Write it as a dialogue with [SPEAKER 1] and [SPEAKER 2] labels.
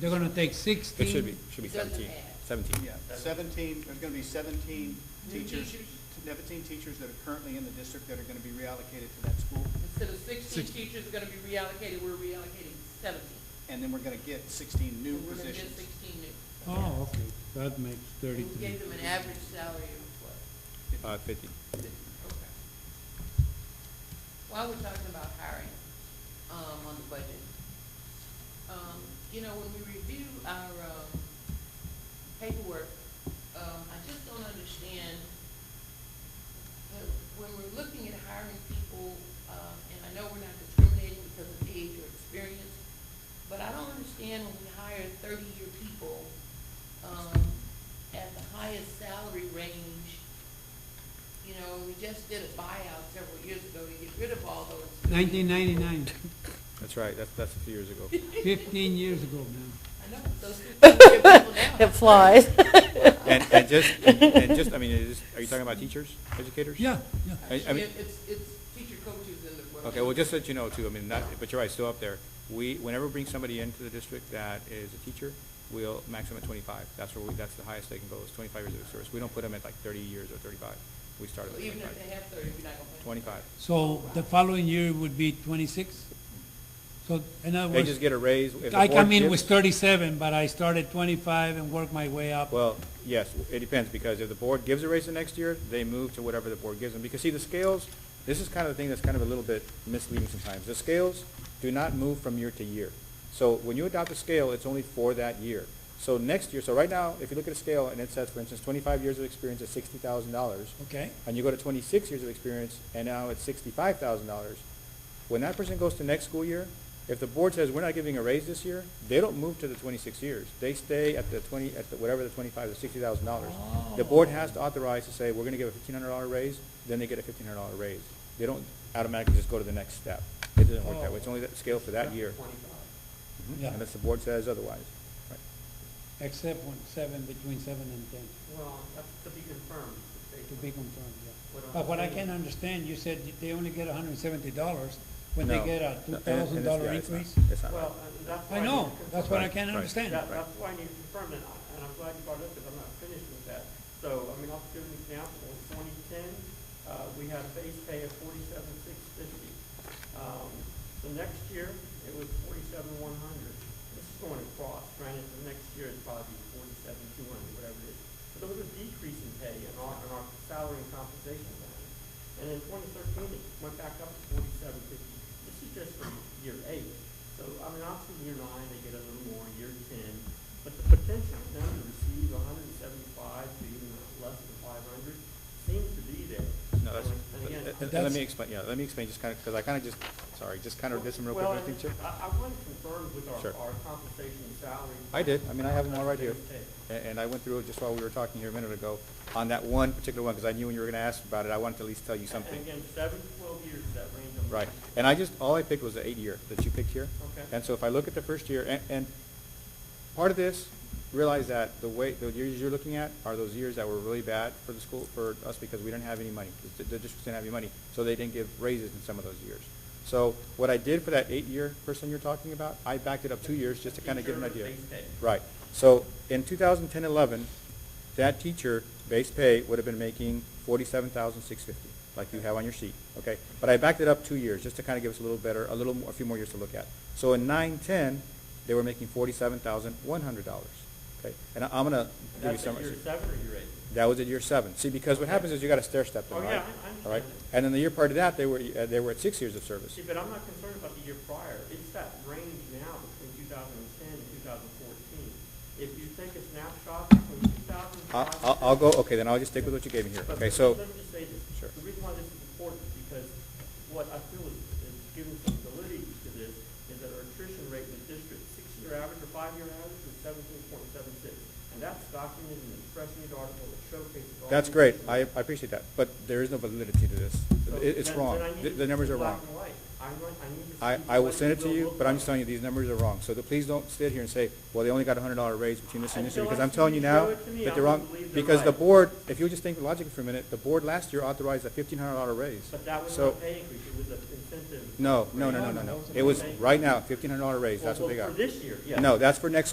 [SPEAKER 1] They're gonna take sixteen.
[SPEAKER 2] It should be, should be
[SPEAKER 3] Doesn't
[SPEAKER 2] seventeen,
[SPEAKER 3] matter.
[SPEAKER 2] seventeen.
[SPEAKER 4] Yeah, seventeen, there's gonna be seventeen teachers, seventeen teachers that are currently in the district that are gonna be reallocated to that school.
[SPEAKER 3] Instead of sixteen
[SPEAKER 1] Six-
[SPEAKER 3] teachers are gonna be reallocated, we're reallocating seventeen.
[SPEAKER 4] And then we're gonna get sixteen new
[SPEAKER 3] So We're gonna get
[SPEAKER 4] positions.
[SPEAKER 3] sixteen new.
[SPEAKER 1] Oh, okay, that makes
[SPEAKER 3] And we
[SPEAKER 1] thirty-three.
[SPEAKER 3] gave them an average salary of what?
[SPEAKER 2] Uh, fifty.
[SPEAKER 3] Okay. While we're talking about hiring, um, on the budget, um, you know, when we review our, um, paperwork, um, I just don't understand that when we're looking at hiring people, um, and I know we're not discriminating because of age or experience, but I don't understand when we hire thirty-year people, um, at the highest salary range, you know, we just did a buyout several years ago to get rid of all those.
[SPEAKER 1] Nineteen ninety-nine,
[SPEAKER 2] That's right, that's, that's a few years ago.
[SPEAKER 1] fifteen years ago now.
[SPEAKER 3] I know, but those fifteen-year people now.
[SPEAKER 5] It flies.
[SPEAKER 2] And, and just, and- and just, I mean, is, this- are you talking about teachers, educators?
[SPEAKER 1] Yeah, yeah.
[SPEAKER 2] I- I mean-
[SPEAKER 3] It- It's, it's teacher coaches and the.
[SPEAKER 2] Okay, well, just so that you know too, I mean, not, but you're right, still up there. We, whenever we bring somebody into the district that is a teacher, we'll maximum at twenty-five. That's where we, that's the highest they can go, is twenty-five years of service. We don't put them at like thirty years or thirty-five. We start at
[SPEAKER 3] So even if
[SPEAKER 2] twenty-five.
[SPEAKER 3] they have thirty, we're not gonna. put-
[SPEAKER 2] Twenty-five.
[SPEAKER 1] So the following year would be twenty-six? So in other
[SPEAKER 2] They just
[SPEAKER 1] words,
[SPEAKER 2] get a raise. if the
[SPEAKER 1] I
[SPEAKER 2] board
[SPEAKER 1] come in
[SPEAKER 2] gives-
[SPEAKER 1] with thirty-seven, but I start at twenty-five and work my way up.
[SPEAKER 2] Well, yes, it depends, because if the board gives a raise the next year, they move to whatever the board gives them. Because see, the scales, this is kind of the thing that's kind of a little bit misleading sometimes. The scales do not move from year to year. So when you adopt a scale, it's only for that year. So next year, so right now, if you look at a scale and it says, for instance, twenty-five years of experience is sixty thousand dollars,
[SPEAKER 1] Okay,
[SPEAKER 2] and you go to twenty-six years of experience, and now it's sixty-five thousand dollars, when that person goes to next school year, if the board says, we're not giving a raise this year, they don't move to the twenty-six years. They stay at the twenty, at the, whatever the twenty-five, the sixty thousand dollars.
[SPEAKER 1] Oh.
[SPEAKER 2] The board has to authorize to say, we're gonna give a fifteen hundred dollar raise, then they get a fifteen hundred dollar raise. They don't automatically just go to the next step. It doesn't work that way. It's only that scale for that year,
[SPEAKER 1] Oh. yeah,
[SPEAKER 2] unless the board says otherwise. Right.
[SPEAKER 1] except when seven, between seven and ten,
[SPEAKER 6] Well, that's to be confirmed. based
[SPEAKER 1] to
[SPEAKER 6] on-
[SPEAKER 1] be confirmed, yeah.
[SPEAKER 6] What I'm
[SPEAKER 1] But what I can't
[SPEAKER 6] saying-
[SPEAKER 1] understand, you said they only get hundred and seventy dollars when they
[SPEAKER 2] No.
[SPEAKER 1] get a two
[SPEAKER 2] And- and it's-
[SPEAKER 1] thousand
[SPEAKER 2] yeah,
[SPEAKER 1] dollar
[SPEAKER 2] it's not-
[SPEAKER 1] increase?
[SPEAKER 2] It's not right.
[SPEAKER 6] Well, and that's why.
[SPEAKER 1] I
[SPEAKER 6] need
[SPEAKER 1] know,
[SPEAKER 6] to
[SPEAKER 1] that's
[SPEAKER 6] confirm-
[SPEAKER 1] what I can't
[SPEAKER 2] Right, right.
[SPEAKER 1] understand.
[SPEAKER 6] that- That's why I need to confirm it, and I'm glad you brought it up, because I'm not finished with that. So, I mean, I'll give an example, in twenty ten, uh, we had a base pay of forty-seven six fifty. Um, the next year, it was forty-seven one hundred. This is going across, granted, the next year is probably forty-seven two hundred, whatever it is. But there was a decrease in pay in our, in our salary and compensation line. And in twenty thirteen, it went back up to forty-seven fifty. This is just from year eight. So, I mean, obviously, year nine, they get a little more, year ten, but the potential for them to receive hundred and seventy-five to even less than five hundred seems to be there.
[SPEAKER 2] No, that's,
[SPEAKER 6] And again,
[SPEAKER 2] and-
[SPEAKER 1] But
[SPEAKER 2] and let
[SPEAKER 1] that's-
[SPEAKER 2] me explain, yeah, let me explain just kind of, because I kind of just, sorry, just kind of did some real quick,
[SPEAKER 6] Well,
[SPEAKER 2] I think, Chip.
[SPEAKER 6] I, I wasn't concerned with
[SPEAKER 2] Sure.
[SPEAKER 6] our, our compensation and salary.
[SPEAKER 2] I did, I mean, I have them all right here,
[SPEAKER 6] Okay.
[SPEAKER 2] A- and I went through it just while we were talking here a minute ago, on that one particular one, because I knew when you were going to ask about it, I wanted to at least tell you something.
[SPEAKER 6] And again, seven, to twelve years, that range. I'm-
[SPEAKER 2] Right, and I just, all I picked was the eight year that you picked here.
[SPEAKER 6] Okay.
[SPEAKER 2] And so if I look at the first year, and, and part of this, realize that the way, the years you're looking at are those years that were really bad for the school, for us, because we didn't have any money. The, the district didn't have any money, so they didn't give raises in some of those years. So what I did for that eight-year person you're talking about, I backed it up two years just to kind of give an
[SPEAKER 6] Teacher
[SPEAKER 2] idea.
[SPEAKER 6] base pay.
[SPEAKER 2] Right, so in 2010-11, that teacher, base pay, would have been making 47,650, like you have on your sheet, okay? But I backed it up two years, just to kind of give us a little better, a little, more- a few more years to look at. So in 9-10, they were making $47,100, okay? And I- I'm gonna give you
[SPEAKER 6] That's
[SPEAKER 2] some.
[SPEAKER 6] at year seven or year eight?
[SPEAKER 2] That was at year seven. See, because what happens is you got to stair step them,
[SPEAKER 6] Oh,
[SPEAKER 2] right?
[SPEAKER 6] yeah, I- I understand
[SPEAKER 2] All right,
[SPEAKER 6] that.
[SPEAKER 2] and then the year prior to that, they were, uh, they were at six years of service.
[SPEAKER 6] See, but I'm not concerned about the year prior. It's that range now between 2010 and 2014. If you take a snapshot between 2005.
[SPEAKER 2] I- I'll, I'll go, okay, then I'll just stick with what you gave me here,
[SPEAKER 6] But
[SPEAKER 2] okay? So,
[SPEAKER 6] Let me just say this.
[SPEAKER 2] Sure.
[SPEAKER 6] The reason why this is important is because what I feel is, is giving some validity to this is that our attrition rate in the district, six-year average or five-year average was 17.76. And that's documented in the Fresh News article that showcases all.
[SPEAKER 2] That's
[SPEAKER 6] these
[SPEAKER 2] great,
[SPEAKER 6] issues.
[SPEAKER 2] I, I appreciate that, but there is no validity to this.
[SPEAKER 6] So
[SPEAKER 2] It- It's
[SPEAKER 6] then-
[SPEAKER 2] wrong,
[SPEAKER 6] then I need
[SPEAKER 2] the,
[SPEAKER 6] to
[SPEAKER 2] the
[SPEAKER 6] see
[SPEAKER 2] numbers are
[SPEAKER 6] black
[SPEAKER 2] wrong.
[SPEAKER 6] and white. I want- I need to
[SPEAKER 2] I,
[SPEAKER 6] see
[SPEAKER 2] I will
[SPEAKER 6] what
[SPEAKER 2] send
[SPEAKER 6] it
[SPEAKER 2] it to
[SPEAKER 6] will
[SPEAKER 2] you,
[SPEAKER 6] look
[SPEAKER 2] but I'm
[SPEAKER 6] like.
[SPEAKER 2] just telling you, these numbers are wrong. So the- please don't sit here and say, well, they only got a hundred dollar raise between this and this year,
[SPEAKER 6] Until
[SPEAKER 2] because
[SPEAKER 6] I
[SPEAKER 2] I'm
[SPEAKER 6] see
[SPEAKER 2] telling
[SPEAKER 6] you
[SPEAKER 2] you now
[SPEAKER 6] show it to me,
[SPEAKER 2] that
[SPEAKER 6] I
[SPEAKER 2] they're
[SPEAKER 6] won't
[SPEAKER 2] wrong.
[SPEAKER 6] believe they're
[SPEAKER 2] Because the
[SPEAKER 6] right.
[SPEAKER 2] board, if you just think logically for a minute, the board last year authorized a fifteen hundred dollar raise.
[SPEAKER 6] But that was
[SPEAKER 2] So-
[SPEAKER 6] not a pay increase, it was an incentive.
[SPEAKER 2] No, no, no, no, no, no. It was right now, fifteen hundred dollar raise, that's what
[SPEAKER 6] Well,
[SPEAKER 2] they got.
[SPEAKER 6] For this year, yeah.
[SPEAKER 2] No, that's for next